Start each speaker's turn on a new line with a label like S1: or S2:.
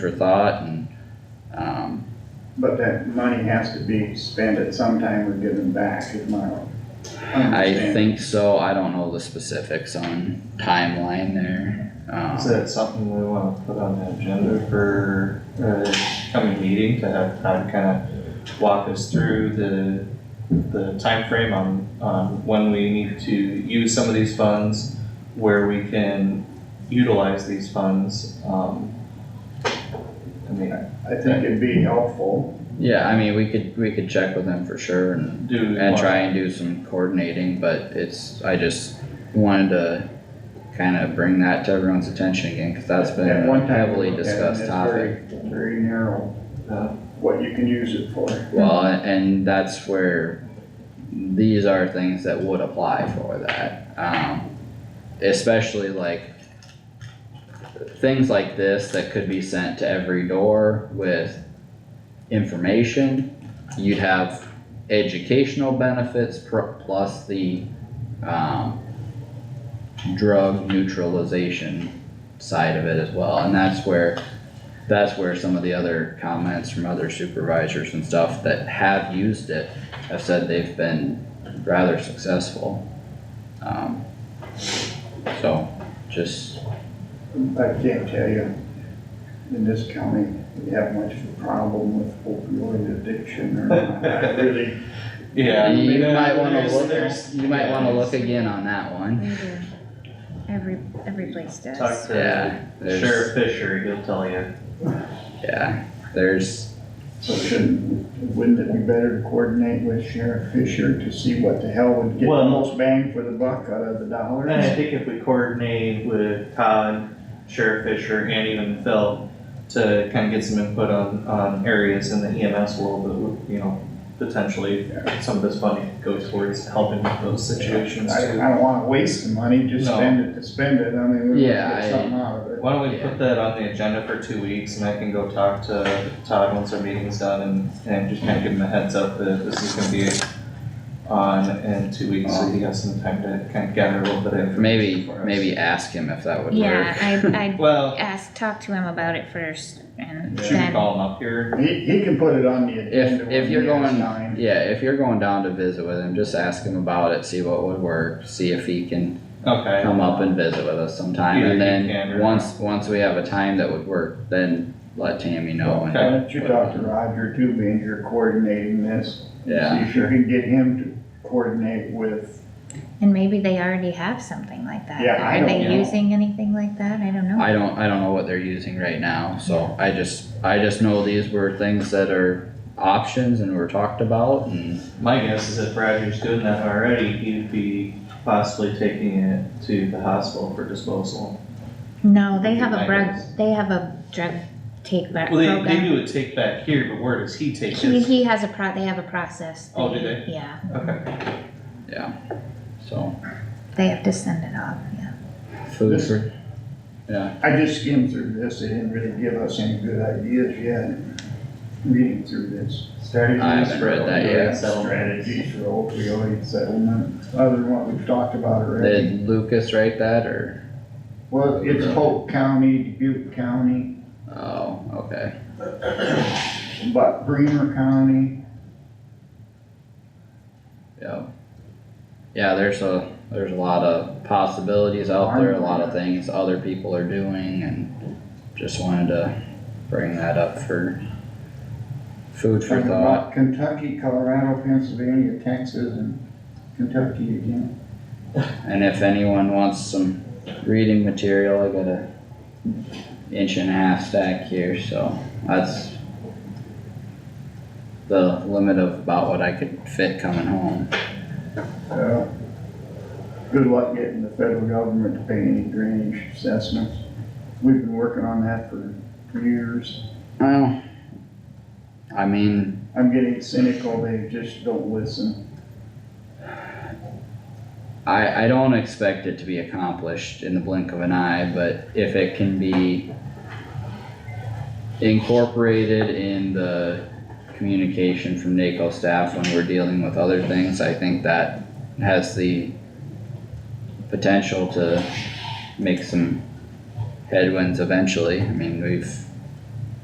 S1: for thought and, um,
S2: But that money has to be spent at some time or given back, is my
S1: I
S2: understanding.
S1: think so, I don't know the specifics on timeline there.
S3: Is
S1: Um,
S3: that something we wanna put on the agenda for, uh, coming meeting to have Todd kinda walk us through the, the timeframe on, on when we need to use some of these funds, where we can utilize these funds, um. I mean,
S2: I think it'd be helpful,
S1: yeah, I mean, we could, we could check with them for sure and
S3: do. we
S1: And
S3: want-
S1: try and do some coordinating, but it's, I just wanted to kind of bring that to everyone's attention again, cause that's been
S2: at
S1: a
S2: one time. we
S1: heavily
S2: looked at it,
S1: discussed
S2: it's
S1: topic.
S2: very- Very narrow, uh,
S3: Yeah.
S2: what you can use it for.
S1: Well, and that's where these are things that would apply for that, um, especially like things like this that could be sent to every door with information. You'd have educational benefits pr- plus the, um, drug neutralization side of it as well, and that's where that's where some of the other comments from other supervisors and stuff that have used it have said they've been rather successful. Um, so, just,
S2: I can't tell you, in this county, we have much of a problem with opioid addiction or not. I really,
S3: Yeah. I mean,
S1: you might wanna
S3: there's-
S1: look,
S3: there's-
S1: you might wanna
S3: yeah,
S1: look again on that one,
S4: They do. Every, every place
S3: Talk
S4: does.
S3: to
S1: yeah,
S3: Sheriff
S1: there's,
S3: Fisher, he'll tell you.
S1: yeah, there's,
S2: so shouldn't, wouldn't it be better to coordinate with Sheriff Fisher to see what the hell would get the
S3: Well- eh,
S2: most bang for the buck out of the dollars?
S3: And I think if we coordinate with Todd, Sheriff Fisher, and even Phil to kind of get some input on, on areas in the EMS world that would, you know, potentially some of this funding could go towards helping with those situations
S2: I,
S3: too.
S2: I don't wanna waste the money, just
S3: No.
S2: spend it to spend it, I mean, we
S1: Yeah,
S2: wanna
S1: I-
S2: get something out of it.
S3: Why don't we put that on the agenda for two weeks and I can go talk to Todd once our meeting's done and, and just kind of give him a heads up that this is gonna be on in two weeks, so he has some time to kind of gather a little bit of information.
S1: maybe,
S3: for us.
S1: maybe ask him if that would work.
S4: Yeah, I,
S3: Well,
S4: I asked, talk to him about it first and
S3: should we
S4: then,
S3: call him up here?
S2: He, he can put it on the agenda.
S1: If,
S2: when
S1: if you're
S2: he has
S1: going,
S2: time.
S1: yeah, if you're going down to visit with him, just ask him about it, see what would work, see if he can
S3: Okay.
S1: come up and visit with us sometime,
S3: Either
S1: and
S3: you can
S1: then,
S3: or-
S1: once, once we have a time that would work, then let Tammy know
S2: Why
S1: and,
S2: don't you talk to Roger too, being you're coordinating this? and
S1: Yeah.
S2: See if you can get him to coordinate with,
S4: and maybe they already have something like that.
S2: Yeah, I
S4: Are
S2: don't
S4: they
S2: know.
S4: using anything like that? I don't know.
S1: I don't, I don't know what they're using right now, so I just, I just know these were things that are options and were talked about, and,
S3: My guess is if Roger's doing that already, he'd be possibly taking it to the hospital for disposal.
S4: No, they have
S3: I
S4: a drug,
S3: guess.
S4: they have a drug take back
S3: Well, they, they
S4: program.
S3: do a take back here, but where does he take
S4: He,
S3: his?
S4: he has a pro, they have a process.
S3: Oh, do they?
S4: Yeah,
S3: Okay,
S1: yeah, so.
S4: they have to send it off, yeah.
S1: Food
S2: This-
S1: for, yeah,
S2: I just skimmed through this, they didn't really give us any good ideas yet, reading through this.
S3: starting
S1: I haven't read that yet.
S2: Strategies for opioid settlement, other than what we've talked about already.
S1: did Lucas write that, or,
S2: Well, it's Polk County, Dubuque County,
S1: oh, okay,
S2: but Bremer County,
S1: yeah. Yeah, there's a, there's a lot of possibilities out there, a lot of things other people are doing, and just wanted to bring that up for food for
S2: talking
S1: thought.
S2: about Kentucky, Colorado, Pennsylvania, Texas, and Kentucky again.
S1: And if anyone wants some reading material, I got a inch and a half stack here, so that's the limit of about what I could fit coming home.
S2: Uh, Good luck getting the federal government to pay any drainage assessments. We've been working on that for years.
S1: Well, I mean,
S2: I'm getting cynical, they just don't listen.
S1: I, I don't expect it to be accomplished in the blink of an eye, but if it can be incorporated in the communication from NACO staff when we're dealing with other things, I think that has the potential to make some headwinds eventually. I mean, we've